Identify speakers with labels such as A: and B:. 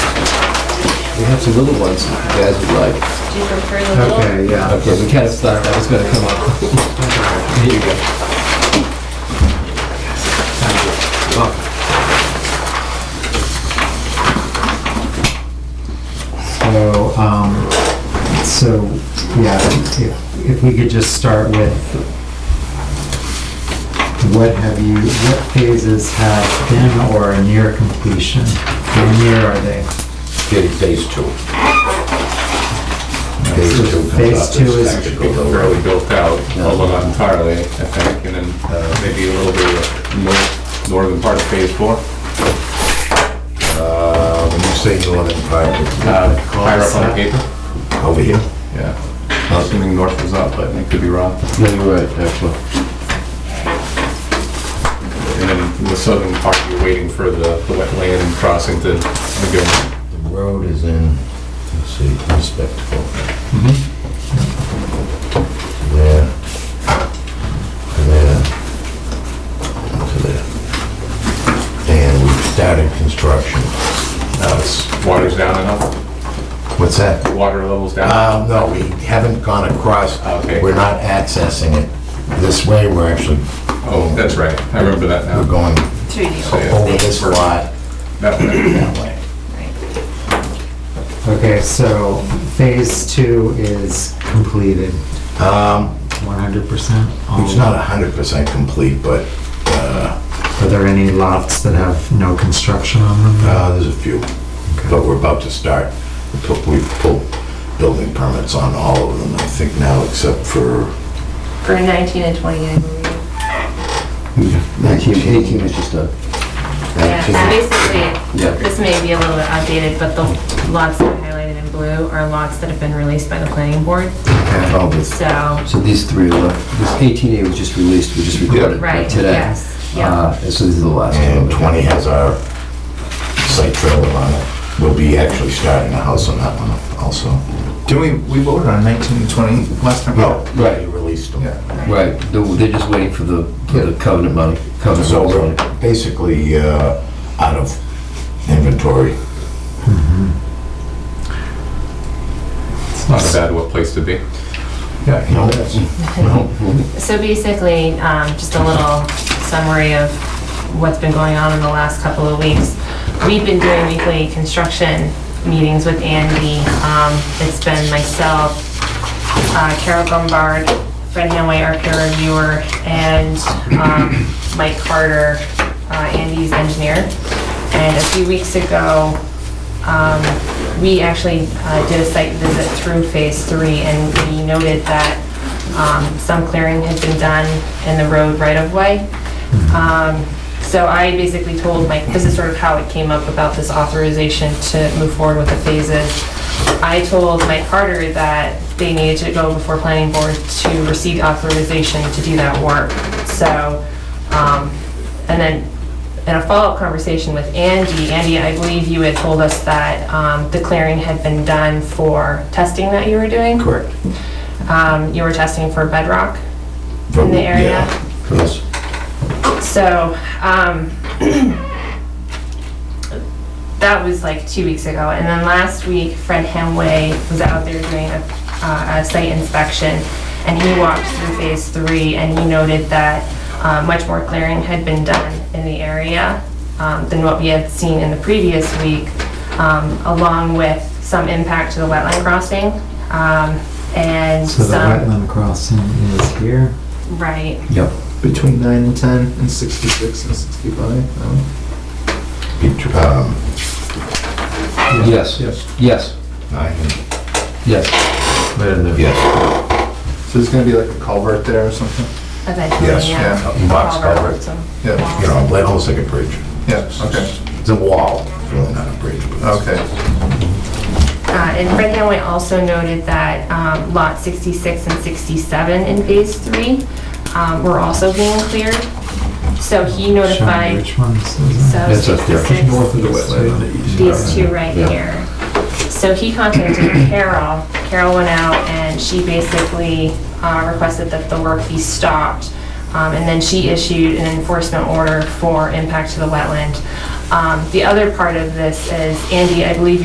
A: We have some little ones if you guys would like.
B: Do you prefer the little?
C: Okay, yeah.
A: Okay, we kind of thought that was gonna come up. Here you go.
C: So, um, so, yeah, if, if we could just start with what have you, what phases have been or are near completion? How near are they?
D: Getting phase two. Phase
C: So
D: two comes
C: phase
D: up
C: two
D: as
C: is-
D: tactical
E: It's
D: road.
E: fairly built out, although not entirely, I think, and then uh, maybe a little bit of nor- northern part of phase four,
D: Uh, When you say northern part, it's
E: uh, higher up on the paper.
D: over here?
E: Yeah, I'm assuming north was up, but it could be wrong.
D: No, you're right, actually.
E: And then the southern part, you're waiting for the the wetland crossing to lagoon.
D: The road is in, let's see, respectable. Mm-hmm. There. There. To there. And we've started construction. Now it's,
E: Water's down and up,
D: what's that?
E: water level's
F: Ah.
E: down.
D: Uh, no, we haven't gone across.
E: Okay.
D: We're not accessing it this way, we're actually,
E: Oh, that's right, I remember that
D: we're
E: now.
D: going
B: Through the
E: So,
B: old.
E: yeah,
D: over this lot
E: That one.
D: that way.
B: right.
C: Okay, so phase two is completed,
D: Um,
C: one hundred percent?
D: It's not hundred percent complete, but, uh,
C: Are there any lots that have no construction on them?
D: uh, there's a few, but we're about to start. We pu- We've pulled building permits on all of them, I think now, except for
B: For 19 and 20, I believe.
A: Nineteen, eighteen is just a,
B: Yeah, so
D: nineteen.
B: basically,
A: Yeah.
B: this may be a little bit outdated, but the lots that are highlighted in blue are lots that have been released by the planning board,
D: All this-
B: so,
A: so these three are, left. this eighteen A was just released, we just recorded it
B: right,
A: today.
B: yes, yeah.
A: Uh, and so these are the last
D: And
A: one.
D: twenty has our site trailer on it. We'll be actually starting a house on that one also.
F: Didn't we, we voted on 19 and 20 last time?
D: No,
A: Right.
D: we released them.
F: Yeah.
A: Right, they're they're just waiting for the, for the covenant money, covenant
D: So
A: rules
D: we're
A: money.
D: basically, uh, out of inventory.
E: It's not a bad place to be.
D: Yeah, you know, that's-
B: So basically, um, just a little summary of what's been going on in the last couple of weeks. We've been doing weekly construction meetings with Andy. Um, It's been myself, uh, Carol Gombard, Fred Hanway, our peer reviewer, and um, Mike Carter, uh, Andy's engineer. And a few weeks ago, um, we actually uh, did a site visit through Phase 3, and we noted that um, some clearing had been done in the road right-of-way. Um, So I basically told Mike, this is sort of how it came up about this authorization to move forward with the phases. I told Mike Carter that they needed to go before planning board to receive authorization to do that work. So, um, and then in a follow-up conversation with Andy, Andy, I believe you had told us that um, the clearing had been done for testing that you were doing?
D: Correct.
B: Um, You were testing for bedrock? In the area?
D: Yeah, Yes.
B: So, um, that was like two weeks ago. And then last week, Fred Hemway was out there doing a, uh, a site inspection and he walked through phase three and he noted that, uh, much more clearing had been done in the area, um, than what we had seen in the previous week, um, along with some impact to the wetland crossing, um, and
C: So the
B: some,
C: wetland crossing is here?
B: right.
A: Yep.
F: Between 9 and 10 and 66 and 65, no?
D: Um,
A: Yes, yes, yes,
D: I can-
A: yes.
D: Yes,
F: So there's gonna be like a culvert there or something?
B: Eventually,
D: Yes,
B: yeah.
D: yeah, box
B: Culvert,
D: culvert.
B: some
F: Yeah,
D: you know, like, almost like a bridge.
F: Yeah, okay,
D: It's a wall, It's really not a bridge. but it's-
F: okay.
B: Uh, And Fred Hanway also noted that um, Lot 66 and 67 in Phase 3 um, were also being cleared. So he
C: Showing
B: notified,
C: Which ones is it?
B: so
A: That's up there.
B: 66,
D: of the wetland on the east.
B: these two right
A: Yeah.
B: here. So he contacted Carol. Carol went out and she basically uh, requested that the work be stopped. Um, And then she issued an enforcement order for impact to the wetland. Um, The other part of this is, Andy, I believe